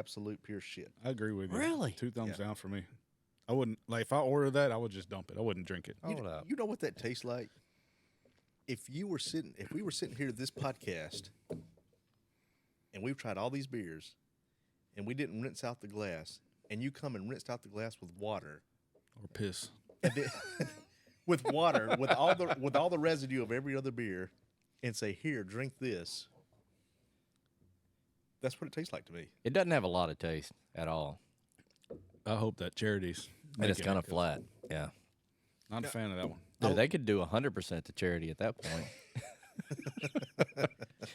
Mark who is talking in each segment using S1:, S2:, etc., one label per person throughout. S1: absolute pure shit.
S2: I agree with you.
S3: Really?
S2: Two thumbs
S1: Yeah.
S2: down for me. I wouldn't like if I ordered that. I would just dump it. I wouldn't drink it.
S1: You,
S3: Hold
S1: kn-
S3: up.
S1: you know what that tastes like? If you were sitting, if we were sitting here this podcast, and we've tried all these beers, and we didn't rinse out the glass, and you come and rinsed out the glass with water,
S2: Or piss.
S1: and then- with water, with all the with all the residue of every other beer, and say, "Here, drink this." That's what it tastes like to me.
S3: It doesn't have a lot of taste at all.
S2: I hope that charities.
S3: And it's
S2: make it.
S3: kind of flat. Yeah.
S2: Not a fan of that one.
S3: Dude, they could do 100% to charity at that point.
S2: That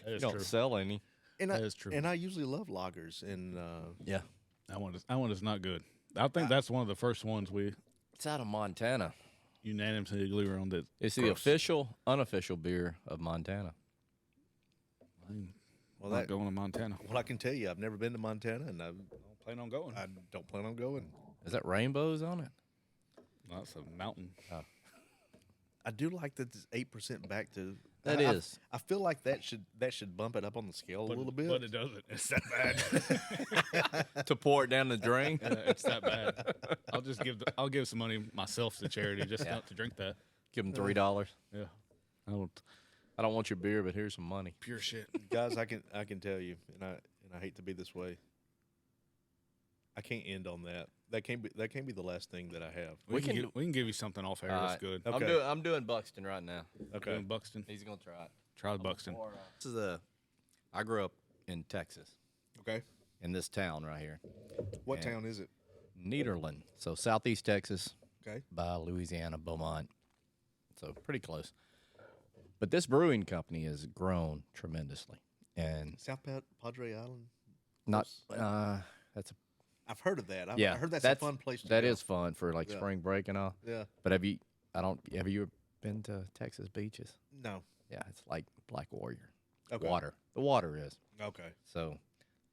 S3: you
S2: is
S3: don't
S2: true.
S3: sell any.
S1: And I,
S2: That is true.
S1: And I usually love lagers, and uh,
S3: Yeah.
S2: That one is that one is not good. I think that's one of the first ones we
S3: It's out of Montana.
S2: unanimously agree on that.
S3: It's the
S2: gross.
S3: official, unofficial beer of Montana.
S1: well,
S2: Not
S1: that
S2: going to Montana.
S1: well, I can tell you, I've never been to Montana, and I
S2: Plan on going.
S1: I don't plan on going.
S3: Is that rainbows on it?
S2: that's a mountain.
S1: I do like that it's eight percent back to.
S3: That
S1: That is. I,
S3: is.
S1: I feel like that should that should bump it up on the scale a little bit.
S2: but it doesn't. It's that bad.
S3: to pour it down the drain?
S2: it's that bad. I'll just give the, I'll give some money myself to charity just
S3: Yeah.
S2: not to drink that.
S3: Give them $3.
S2: Yeah. I don't.
S3: I don't want your beer, but here's some money.
S2: Pure shit.
S1: Guys, I can I can tell you, and I and I hate to be this way. I can't end on that. That can't be that can't be the last thing that I have.
S2: We,
S3: We
S2: can,
S3: can- Uh,
S2: give, we can give you something off air.
S3: All
S2: that's good.
S3: right.
S1: Okay.
S3: I'm doing I'm doing Buxton right now.
S1: Okay.
S2: Doing Buxton.
S3: He's gonna try it.
S2: Try the Buxton.
S3: uh, This is a. I grew up in Texas,
S1: Okay.
S3: in this town right here,
S1: What town is it?
S3: Nederland. So southeast Texas
S1: Okay.
S3: by Louisiana, Beaumont. So pretty close. But this brewing company has grown tremendously, and
S1: South Pa- Padre Island.
S3: not. Uh, that's a,
S1: I've heard of that. I've,
S3: yeah.
S1: I heard that's, a fun place. To
S3: That
S1: go.
S3: is fun for like
S1: Yeah.
S3: spring break and all.
S1: Yeah.
S3: But have you? I don't. Have you been to Texas beaches?
S1: No.
S3: Yeah, it's like Black Warrior.
S1: Okay.
S3: Water. The water is.
S1: Okay.
S3: So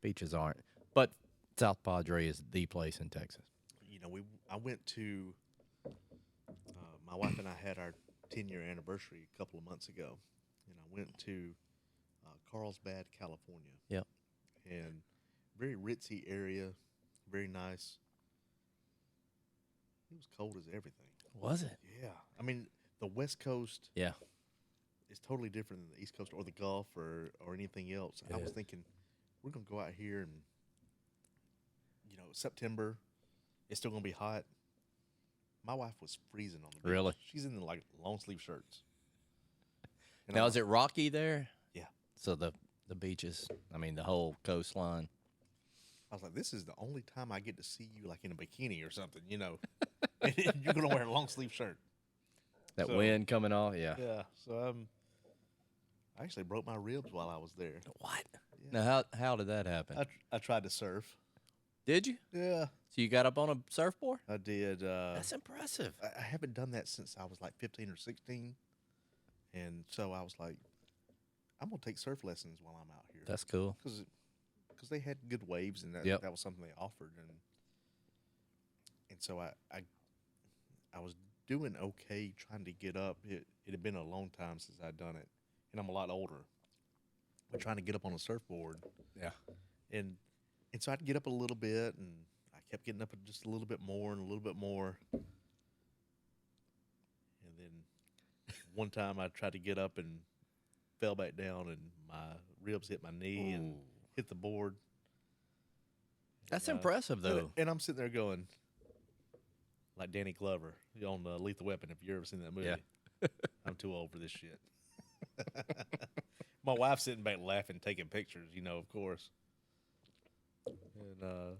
S3: beaches aren't. But South Padre is the place in Texas.
S1: you know, we I went to uh, my wife and I had our ten year anniversary a couple of months ago, and I went to uh, Carlsbad, California.
S3: Yep.
S1: and very ritzy area, very nice. It was cold as everything.
S3: Was it?
S1: Yeah, I mean the West Coast
S3: Yeah.
S1: is totally different than the East Coast or the Gulf or or anything else. And I was thinking we're gonna go out here and you know September, it's still gonna be hot. My wife was freezing on the beach.
S3: Really?
S1: She's in like long sleeve shirts. And
S3: Now
S1: I'm
S3: is it rocky there?
S1: Yeah.
S3: So the the beaches, I mean the whole coastline.
S1: I was like, this is the only time I get to see you like in a bikini or something, you know. and you're gonna wear a long sleeve shirt.
S3: That
S1: So-
S3: wind coming off. Yeah.
S1: Yeah. So um, I actually broke my ribs while I was there.
S3: What? Now how how did that happen?
S1: I, tr- I tried to surf.
S3: did you?
S1: Yeah,
S3: So you got up on a surfboard?
S1: I did. Uh,
S3: That's impressive.
S1: I, I haven't done that since I was like 15 or 16. And so I was like, I'm going to take surf lessons while I'm out here.
S3: That's cool.
S1: Because they had good waves and that,
S3: Yep.
S1: that was something they offered. And and so I, I, I was doing okay trying to get up. It, it had been a long time since I'd done it. And I'm a lot older. But trying to get up on a surfboard.
S3: Yeah.
S1: And, and so I'd get up a little bit and I kept getting up just a little bit more and a little bit more. And then one time I tried to get up and fell back down, and my ribs hit my knee and hit the board.
S3: That's
S1: Yeah.
S3: impressive
S1: And,
S3: though.
S1: and I'm sitting there going, like Danny Glover on uh, Lethal Weapon, if you've ever seen that movie.
S3: Yeah.
S1: I'm too old for this shit. my wife's sitting back laughing, taking pictures, you know, of course. And uh,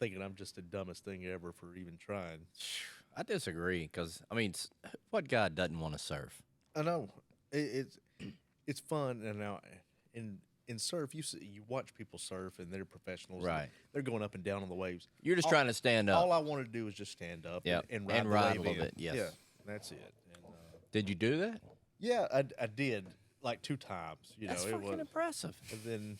S1: thinking I'm just the dumbest thing ever for even trying.
S3: I disagree because I mean, s- what guy doesn't want to surf?
S1: I know it, it's it's fun, and now in in surf you see, you watch people surf and they're professionals, and
S3: Right.
S1: They're going up and down on the waves.
S3: You're just
S1: All-
S3: trying to stand up.
S1: All I want to do is just stand up,
S3: Yep,
S1: and,
S3: and
S1: ride, the
S3: ride
S1: wave
S3: a little
S1: in.
S3: bit, yes.
S1: yeah, that's it. And, uh,
S3: did you do that?
S1: yeah, I, I did like two times. You
S3: That's
S1: know, it
S3: fucking
S1: was,
S3: impressive.
S1: and then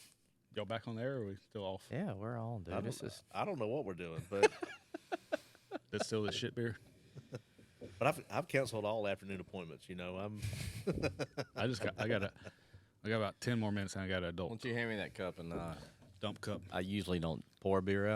S2: Y'all back on the air? Or are we still off?
S3: Yeah, we're on, dude.
S1: I
S3: This
S1: don't,
S3: is
S1: I don't know what we're doing, but
S2: That's still the shit beer.
S1: but I've I've canceled all afternoon appointments. You know, I'm
S2: I just got. I got a. I got about ten more minutes, and I got an adult.
S3: you hand me that cup and uh,
S2: dump cup.
S3: I usually don't pour beer out.